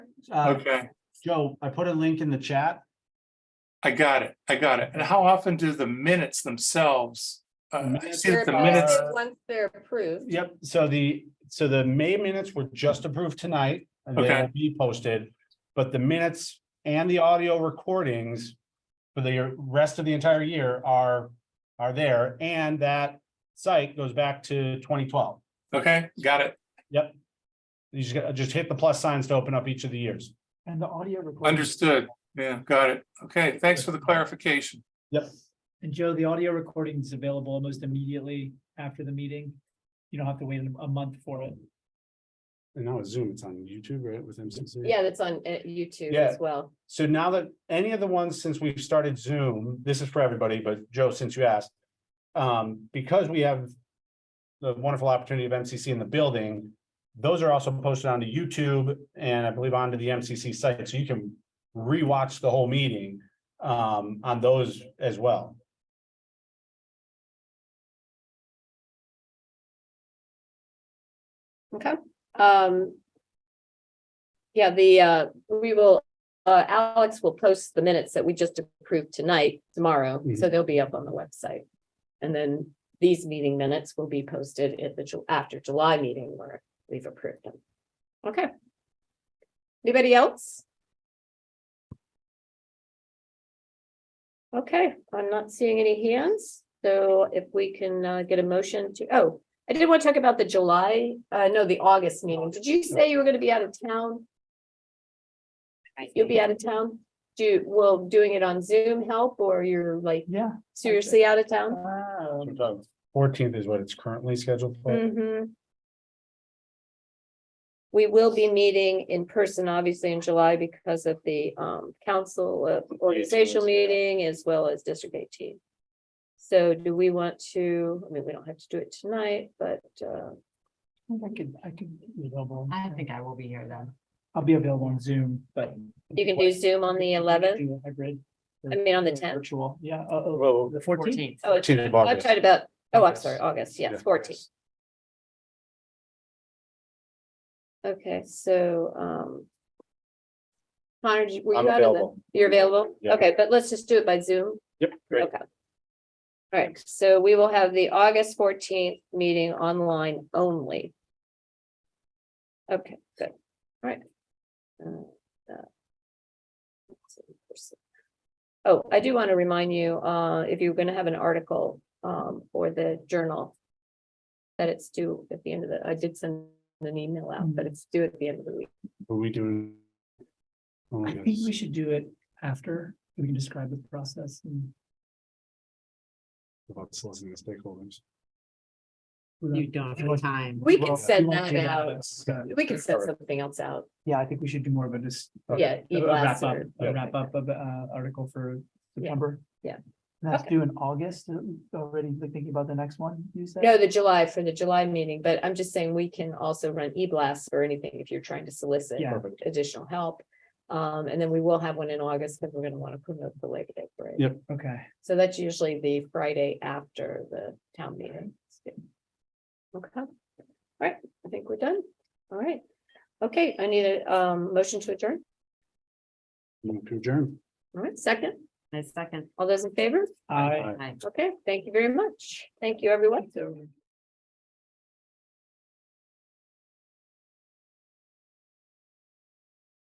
Uh, Okay, Joe, I put a link in the chat. I got it. I got it. And how often do the minutes themselves? Uh, I Minutes see that the are- minutes, Once they're approved, Yep, so the, so the May minutes were just approved tonight. and They Okay. will be posted, but the minutes and the audio recordings for the rest of the entire year are, are there, and that site goes back to twenty twelve. okay, got it. You just, gotta- just hit the plus signs to open up each of the years. And the audio recording. Understood. Yeah, got it. Okay, thanks for the clarification. Yep, And Joe, the audio recording is available almost immediately after the meeting. You don't have to wait a month for it. and now with Zoom, it's on YouTube, right, with MCC? yeah, that's on uh, YouTube Yeah. as well. So now that any of the ones since we've started Zoom, this is for everybody, but Joe, since you asked. Um, because we have. The wonderful opportunity of MCC in the building, those are also posted onto YouTube and I believe onto the MCC site, so you can. Rewatch the whole meeting um on those as well. Um. Yeah, the, uh, we will, uh, Alex will post the minutes that we just approved tonight, tomorrow, so they'll be up on the website. And then these meeting minutes will be posted at the, Ju- after July meeting where we've approved them. Okay. Anybody else? Okay, I'm not seeing any hands, so if we can, uh, get a motion to, oh, I did want to talk about the July, uh, no, the August meeting. Did you say you were gonna be out of town? You'll be out of town? Do, will doing it on Zoom help or you're like Yeah. seriously out of town? Wow. Fourteenth is what it's currently scheduled Mm. for. Mhm. We will be meeting in person, obviously, in July because of the um council uh, organizational meeting as well as District eighteen. So do we want to, I mean, we don't have to do it tonight, but uh, I could, I could be available. I think I will be here then. I'll be available on Zoom, but. you can do Zoom on the eleventh, Do a Hybrid. I mean, on the or tenth. Virtual, yeah, oh, oh, Well, the fourteenth. Oh, it's- 14th of I'm August. talking about, oh, I'm Yes. sorry, August, Yeah. yes, fourteen. Okay, so um. Connor, did you- were you I'm out of the? available. You're available? Yeah. Okay, but let's just do it by Zoom. Yep, great. Okay. All right, so we will have the August fourteenth meeting online only. Okay, good, all right. Uh, uh, let's see, there's- Oh, I do want to remind you, uh, if you're gonna have an article, um, for the journal. That it's due at the end of the, I did send an email out, but it's due at the end of the week. Are we doing? Oh, I my think goodness. we should do it after, we can describe the process and. About soliciting the stakeholders. You don't have time. We Well, can send we won't that do out, Uh, we can send something else out. Yeah, I think we should do more of a just. Yeah, A e a wrap blast up, or a wrap up of, uh, article for September. yeah. That's Okay. due in August, uh, already like, thinking about the next one, you said? No, the July, for the July meeting, but I'm just saying we can also run e-blasts or anything if you're trying to solicit Yeah. additional help. Um, and then we will have one in August because we're gonna want to promote the Labor Day parade. Yep. Okay. So that's usually the Friday after the town meeting. Okay, all right, I think we're done. All right. Okay, I need a um motion to adjourn. Move to adjourn. All right, second. My second. All those in favor? I. Aye. Okay, thank you very much. Thank you, everyone.